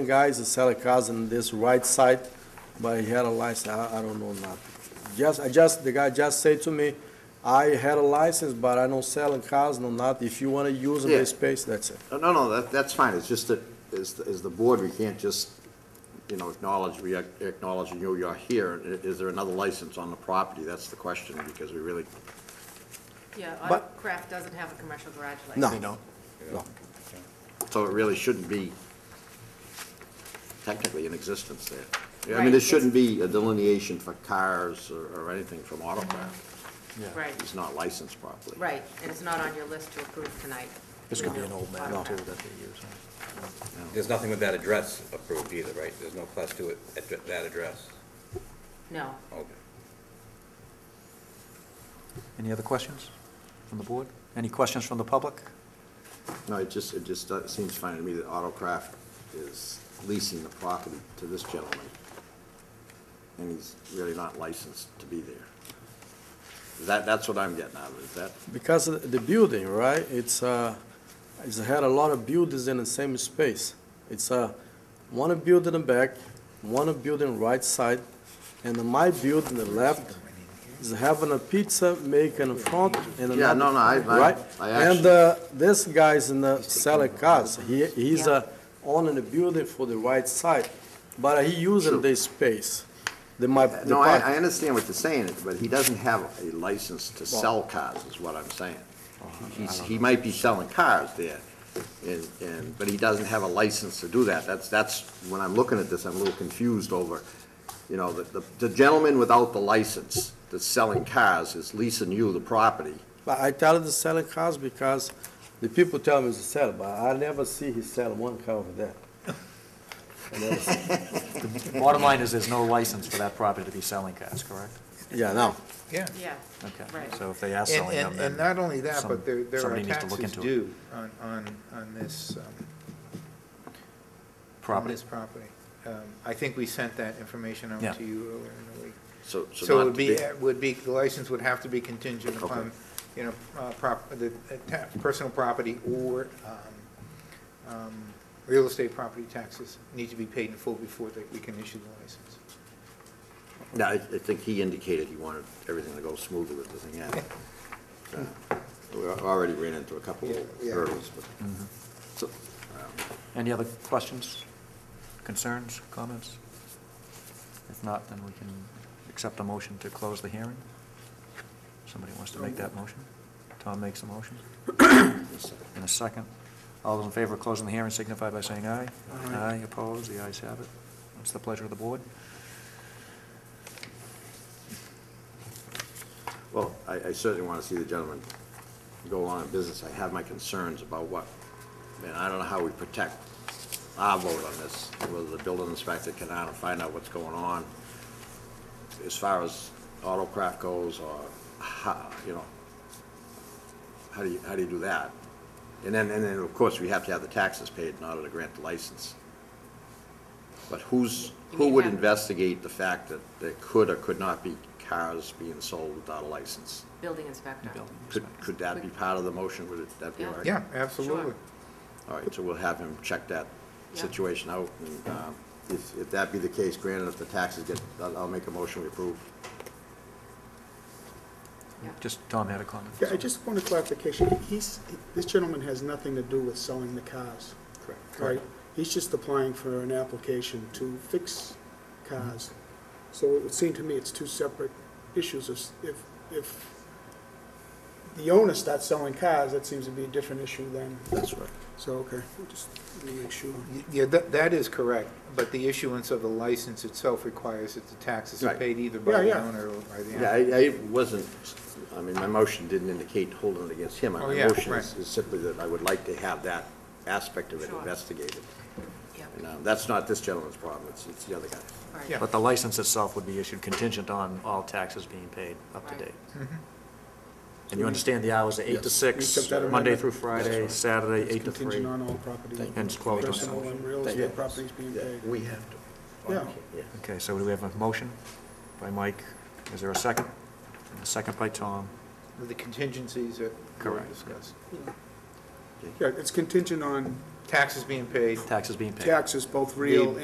guys that sell a cars on this right side, but he had a license, I, I don't know nothing. Just, I just, the guy just said to me, I had a license, but I don't sell cars, no nothing. If you wanna use Yeah. my space, that's it. No, no, no, that, that's fine, it's just that, as, as the board, we can't just, you know, acknowledge, we ac- acknowledge you, you're here, I- is there another license on the property, that's the question, because we really, Yeah, But- Autocraft doesn't have a commercial garage license. No. They don't? No. so it really shouldn't be technically in existence there. Yeah, I Right, mean, there it's- shouldn't be a delineation for cars or, or anything from Autocraft, Right, it's not licensed properly. right, and it's not on your list to approve tonight. This could be an old man, too, Autocraft. that they use. There's nothing with that address approved either, right? There's no class two at at that address. No, Okay. Any other questions from the board? Any questions from the public? No, it just, it just does- seems fine to me that Autocraft is leasing the property to this gentleman, and he's really not licensed to be there. That, that's what I'm getting out of it, is that, Because of the building, right, it's, uh, it's had a lot of buildings in the same space. It's, uh, one building in the back, one building right side, and my building the left is having a pizza making in front and another. Yeah, no, no, I- I- Right? I And, actually- uh, this guy's in the selling cars, he, he's, uh, owning the building for the right side, but he using Sure. this space, the, my, the Uh, no, I, park. I understand what you're saying, but he doesn't have a license to sell cars, is what I'm saying. Uh-huh, He's, he might be selling cars there, and, and, but he doesn't have a license to do that. That's, that's, when I'm looking at this, I'm a little confused over, you know, the, the- the gentleman without the license that's selling cars is leasing you the property. But I tell him to sell a cars because the people tell me to sell, but I never see he sell one car over there. I never see. Bottom line is, there's no license for that property to be selling cars, correct? Yeah, no. Yeah. yeah, Okay, right. so if they are And, selling them, and, then and not only that, some- but there, there are somebody needs to look taxes into it. due on, on, on this, um, on property. this property. Um, I think we sent that information Yeah. out to you earlier in the week. So, So so it not to would be, be, it would be, the license would have to be contingent Okay. upon, you know, uh, prop, the, uh, ta- personal property or, um, um, real estate property taxes need to be paid in full before that we can issue the license. yeah, I, I think he indicated he wanted everything to go smoothly with the thing, yeah. Uh, We al- already ran into a couple of Yeah, Mm-hmm. yeah. hurdles, but, so, Any other questions, concerns, comments? If not, then we can accept a motion to close the hearing. Somebody wants to make that motion? Tom makes a motion in a second. All those in favor of closing the hearing signify by saying aye. Aye. opposed, the ayes have it. What's the pleasure of the board? Well, I, I certainly want to see the gentleman go on in business. I have my concerns about what, and I don't know how we protect our vote on this, whether the building inspector can out and find out what's going on as far as autocraft goes, or how, you know, how do you, how do you do that? And then, and then, of course, we have to have the taxes paid in order to grant the license. But who's, You who mean would have- investigate the fact that there could or could not be cars being sold without a license? Building inspector. Building Could, inspector. could that be part of the motion? Would it- that be all right? Yeah, absolutely. Sure. All right, so we'll have him check that Yeah. situation out, and um, if, if that be the case, granted, if the taxes get, I'll, I'll make a motion we approve. Yeah. Just, Tom had a comment. Yeah, I just want a clarification. He's, this gentleman has nothing to do with selling the cars, right? He's just applying for an application to fix cars. So it would seem to me it's two separate issues. If- If, if the owner starts selling cars, that seems to be a different issue then. That's right. So, okay, just let me make sure. Y- Yeah, that, that is correct, but the issuance of the license itself requires that the taxes are Right. paid either by Yeah, the yeah. owner or by the Yeah, applicant. I, I wasn't, I mean, my motion didn't indicate holding it against him. Oh, My yeah, motion is right. is simply that I would like to have that aspect of it Sure. investigated. Yeah, And um, that's not this gentleman's problem, it's, it's the other guy. all right. Yeah. But the license itself would be issued contingent on all taxes being paid up to Right. date. Mm-hmm. And you understand the hours are eight to six, Accept that Monday amendment? through Friday, Saturday, It's eight to three. Contingent on all property. And it's closed on Personal Sunday. and real Thank you. estate properties being Yeah, paid. We have to. Yeah. Yeah. Okay, so do we have a motion by Mike? Is there a second? And a second by Tom. With the contingencies that were Correct. discussed. Yeah, it's contingent on taxes being paid, taxes being paid. taxes, both real The-